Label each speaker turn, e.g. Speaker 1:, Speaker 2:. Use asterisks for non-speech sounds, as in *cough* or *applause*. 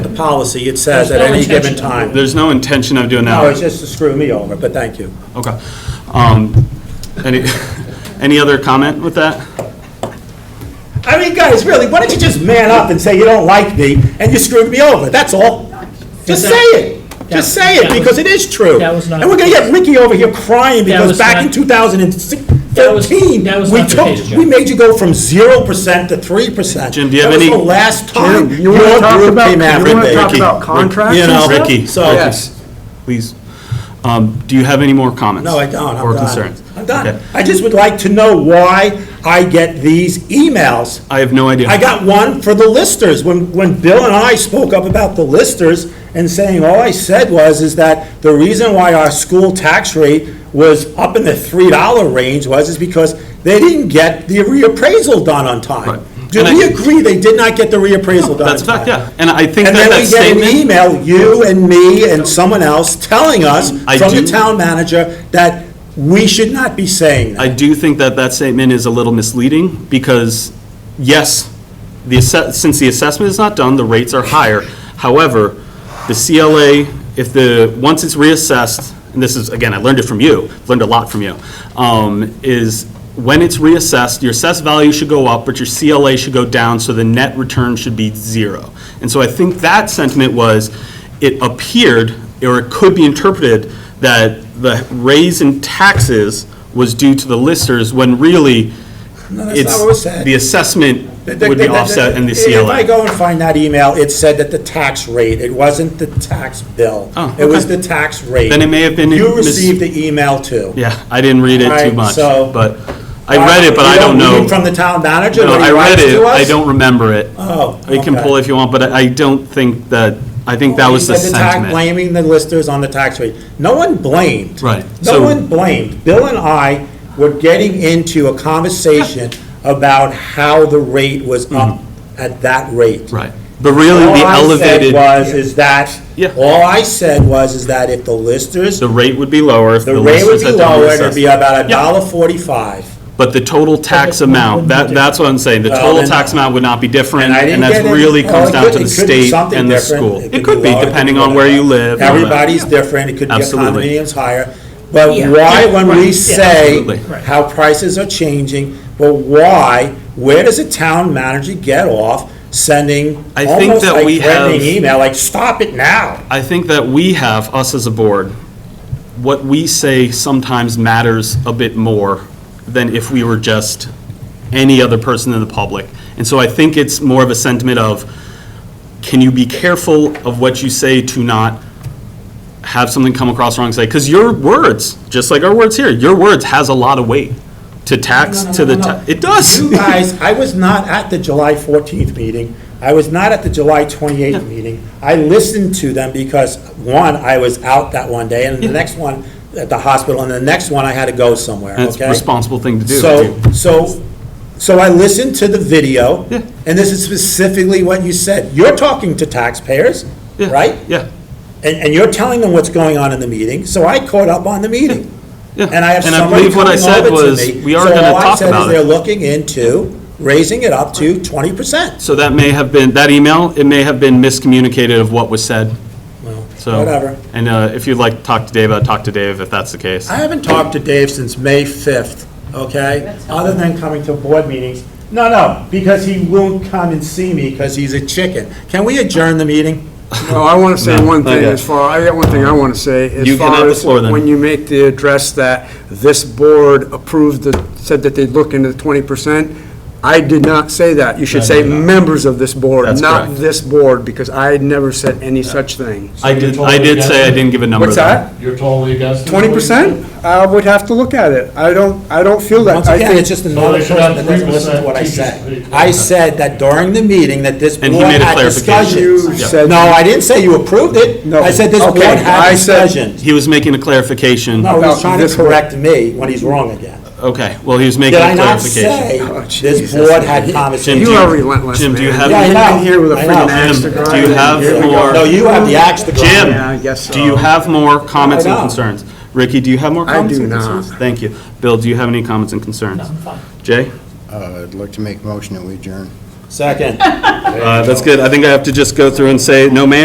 Speaker 1: policy, it says
Speaker 2: There's
Speaker 1: at
Speaker 2: no
Speaker 1: any given
Speaker 2: intention.
Speaker 1: time.
Speaker 3: There's no intention of doing that.
Speaker 1: No, it's just to screw me over, but thank you.
Speaker 3: Okay. Um, Any, *laughs* any other comment with that?
Speaker 1: I mean, guys, really, why don't you just man up and say you don't like me, and you screwed me over, that's all? Just say it, just say it, because it is true.
Speaker 2: That was not-
Speaker 1: And we're gonna get Ricky over here crying because
Speaker 2: was
Speaker 1: back in
Speaker 2: not-
Speaker 1: 2013,
Speaker 2: that was
Speaker 1: we
Speaker 2: not the case,
Speaker 1: took,
Speaker 2: Jim.
Speaker 1: we made you go from zero percent to three percent.
Speaker 3: Jim, do you have any-
Speaker 1: That was the last time
Speaker 4: Jim, you
Speaker 1: your
Speaker 4: wanna talk
Speaker 1: group
Speaker 4: about-
Speaker 1: came
Speaker 4: you
Speaker 1: after me.
Speaker 4: wanna talk
Speaker 3: Ricky,
Speaker 4: about
Speaker 3: Rick-
Speaker 4: contracts
Speaker 3: you
Speaker 4: and
Speaker 3: know,
Speaker 4: stuff?
Speaker 3: Ricky,
Speaker 1: So-
Speaker 3: Ricky, please. Um, Do you have any more comments?
Speaker 1: No, I don't, I'm
Speaker 3: Or
Speaker 1: done.
Speaker 3: concerns?
Speaker 1: I'm done.
Speaker 3: Okay.
Speaker 1: I just would like to know why I get these emails.
Speaker 3: I have no idea.
Speaker 1: I got one for the listers, when, when Bill and I spoke up about the listers and saying, all I said was, is that the reason why our school tax rate was up in the three dollar range was, is because they didn't get the reappraisal done on
Speaker 3: Right.
Speaker 1: time. Do
Speaker 3: And I-
Speaker 1: we agree they did not get the reappraisal done on time?
Speaker 3: That's a fact, yeah. And I think that
Speaker 1: And then
Speaker 3: that
Speaker 1: we get an
Speaker 3: statement,
Speaker 1: email, you and me and someone else, telling us
Speaker 3: I
Speaker 1: from the
Speaker 3: do-
Speaker 1: town manager that we should not be saying
Speaker 3: I
Speaker 1: that.
Speaker 3: do think that that statement is a little misleading because, yes, the, asse- since the assessment is not done, the rates are higher. However, the CLA, if the, once it's reassessed, and this is, again, I learned it from you, learned a lot from you, um, is when it's reassessed, your assessed value should go up, but your CLA should go down, so the net return should be zero. And so I think that sentiment was, it appeared, or it could be interpreted, that the raise in taxes was due to the listers, when really,
Speaker 1: No, that's not
Speaker 3: it's,
Speaker 1: what was said.
Speaker 3: the assessment would be offset in the
Speaker 1: If I
Speaker 3: CLA.
Speaker 1: go and find that email, it said that the tax rate, it wasn't the tax bill.
Speaker 3: Oh,
Speaker 1: It was
Speaker 3: okay.
Speaker 1: the tax rate.
Speaker 3: Then it may have been
Speaker 1: You
Speaker 3: mis-
Speaker 1: received the email too.
Speaker 3: Yeah, I didn't read it too
Speaker 1: Alright,
Speaker 3: much,
Speaker 1: so-
Speaker 3: but, I read it, but I
Speaker 1: You
Speaker 3: don't
Speaker 1: read
Speaker 3: know.
Speaker 1: it From the town manager?
Speaker 3: No,
Speaker 1: when he
Speaker 3: I read
Speaker 1: writes
Speaker 3: it,
Speaker 1: to
Speaker 3: I
Speaker 1: us?
Speaker 3: don't remember it.
Speaker 1: Oh,
Speaker 3: I can
Speaker 1: okay.
Speaker 3: pull if you want, but I I don't think that, I think that was the
Speaker 1: He said tax-
Speaker 3: sentiment.
Speaker 1: Blaming the listers on the tax rate. No one blamed.
Speaker 3: Right,
Speaker 1: No
Speaker 3: so-
Speaker 1: one blamed. Bill and I were getting into a conversation about how the rate was up at that rate.
Speaker 3: Hmm. Right, but really
Speaker 1: All
Speaker 3: the
Speaker 1: I said
Speaker 3: elevated,
Speaker 1: was, is that,
Speaker 3: Yeah.
Speaker 1: all I said was, is that if the listers,
Speaker 3: the
Speaker 1: the
Speaker 3: rate would be lower if the
Speaker 1: rate would
Speaker 3: listers
Speaker 1: be
Speaker 3: had done
Speaker 1: lower, it'd be
Speaker 3: reassessment.
Speaker 1: about a
Speaker 3: Yeah.
Speaker 1: dollar forty-five.
Speaker 3: But the total tax amount, that, that's what I'm saying, the
Speaker 1: Well,
Speaker 3: total
Speaker 1: then-
Speaker 3: tax amount would not be different,
Speaker 1: And I
Speaker 3: and
Speaker 1: didn't
Speaker 3: that
Speaker 1: get it.
Speaker 3: really
Speaker 1: Well,
Speaker 3: comes
Speaker 1: it
Speaker 3: down
Speaker 1: could-
Speaker 3: to
Speaker 1: it
Speaker 3: the
Speaker 1: could be
Speaker 3: state
Speaker 1: something
Speaker 3: and the
Speaker 1: different.
Speaker 3: school. It could
Speaker 1: lower,
Speaker 3: be,
Speaker 1: it
Speaker 3: depending on where you live. and all that.
Speaker 1: Everybody's different, it could be
Speaker 3: Absolutely.
Speaker 1: condominiums higher, but
Speaker 2: Yeah.
Speaker 1: why, when we say
Speaker 3: absolutely. Right.
Speaker 1: how prices are changing, but why, where does a town manager get off sending
Speaker 3: I think
Speaker 1: almost
Speaker 3: that
Speaker 1: like
Speaker 3: we have-
Speaker 1: threatening email, like, stop it now?
Speaker 3: I think that we have, us as a board, what we say sometimes matters a bit more than if we were just any other person in the public. And so I think it's more of a sentiment of, can you be careful of what you say to not have something come across wrong side? Because your words, just like our words here, your words has a lot of weight to tax, to the, ta- it does.
Speaker 1: You guys, I was not at the July 14th meeting. I was not at the July 28th meeting. I listened to them because, one, I was out that one day, and the next one at the hospital, and the next one I had to go somewhere,
Speaker 3: That's a
Speaker 1: okay?
Speaker 3: responsible thing to do.
Speaker 1: So, so, so I listened to the video,
Speaker 3: Yeah.
Speaker 1: and this is specifically what you said. You're talking to taxpayers,
Speaker 3: Yeah,
Speaker 1: right?
Speaker 3: Yeah,
Speaker 1: And, and you're telling them what's going on in the meeting, so I caught up on the meeting.
Speaker 3: Yeah,
Speaker 1: And I have
Speaker 3: and I
Speaker 1: somebody
Speaker 3: believe what I
Speaker 1: coming
Speaker 3: said
Speaker 1: over
Speaker 3: was,
Speaker 1: to me.
Speaker 3: we are gonna talk
Speaker 1: So all I said
Speaker 3: about
Speaker 1: is
Speaker 3: it.
Speaker 1: they're looking into raising it up to twenty percent,
Speaker 3: So that may have been, that email, it may have been miscommunicated of what was said, so.
Speaker 1: whatever.
Speaker 3: And uh, if you'd like to talk to Dave, I'd talk to Dave if that's the case.
Speaker 1: I haven't talked to Dave since May 5th, okay? Other than coming to board meetings. No, no, because he won't come and see me because he's a chicken. Can we adjourn the meeting?
Speaker 4: Well, I want to say
Speaker 3: No,
Speaker 4: one
Speaker 3: not
Speaker 4: thing
Speaker 3: yet.
Speaker 4: as far, I got one thing I want to say.
Speaker 3: You
Speaker 4: As
Speaker 3: can have
Speaker 4: far
Speaker 3: the
Speaker 4: as
Speaker 3: floor then.
Speaker 4: when you make the address that this board approved, the- said that they'd look into the 20%, I did not say that. You should say members of this board,
Speaker 3: That's
Speaker 4: not
Speaker 3: correct.
Speaker 4: this board, because I never said any such thing.
Speaker 3: I did, I did say I didn't give a number.
Speaker 4: What's
Speaker 3: though.
Speaker 4: that?
Speaker 5: You're totally against it?
Speaker 4: 20%? I would have to look at it. I don't, I don't feel that.
Speaker 1: Once
Speaker 4: I
Speaker 1: again,
Speaker 4: think-
Speaker 1: it's just another
Speaker 5: they should
Speaker 1: person that
Speaker 5: have
Speaker 1: doesn't
Speaker 5: 3%
Speaker 1: listen to what I
Speaker 5: teachers
Speaker 1: say.
Speaker 5: pay.
Speaker 1: I said that during the meeting that this board
Speaker 3: And he made a
Speaker 1: had
Speaker 3: clarification.
Speaker 4: You
Speaker 1: discussions.
Speaker 4: said-
Speaker 1: No, I didn't say you approved it.
Speaker 4: No.
Speaker 1: I said this board
Speaker 4: Okay,
Speaker 1: had
Speaker 4: I said-
Speaker 1: discussions.
Speaker 3: He was making a clarification.
Speaker 1: No, he's
Speaker 4: About
Speaker 1: trying to
Speaker 4: this board.
Speaker 1: correct me when he's wrong again.
Speaker 3: Okay, well, he was making
Speaker 1: Did
Speaker 3: a
Speaker 1: I not
Speaker 3: clarification.
Speaker 1: say
Speaker 4: Oh,
Speaker 1: this
Speaker 4: Jesus.
Speaker 1: board had
Speaker 3: Jim,
Speaker 1: conversations?
Speaker 3: do
Speaker 4: You are relentless,
Speaker 3: Jim, do you
Speaker 4: man.
Speaker 3: have-
Speaker 1: Yeah, I
Speaker 4: You've
Speaker 1: know.
Speaker 4: been here with a
Speaker 1: I
Speaker 4: freaking
Speaker 1: know.
Speaker 4: axe to
Speaker 3: Jim,
Speaker 4: grind.
Speaker 3: do you have
Speaker 4: Here we go.
Speaker 3: more-
Speaker 1: No, you have the axe to grind.
Speaker 3: Jim,
Speaker 4: Yeah, I guess
Speaker 3: do you
Speaker 4: so.
Speaker 3: have more comments and
Speaker 1: I don't.
Speaker 3: concerns? Ricky, do you have more
Speaker 4: I
Speaker 3: comments
Speaker 4: do
Speaker 3: and
Speaker 4: not.
Speaker 3: concerns? Thank you. Bill, do you have any comments and concerns? Jay?
Speaker 6: Uh, I'd like to make a motion that we adjourn.
Speaker 1: Second.
Speaker 3: Uh, That's good. I think I have to just go through and say, no man.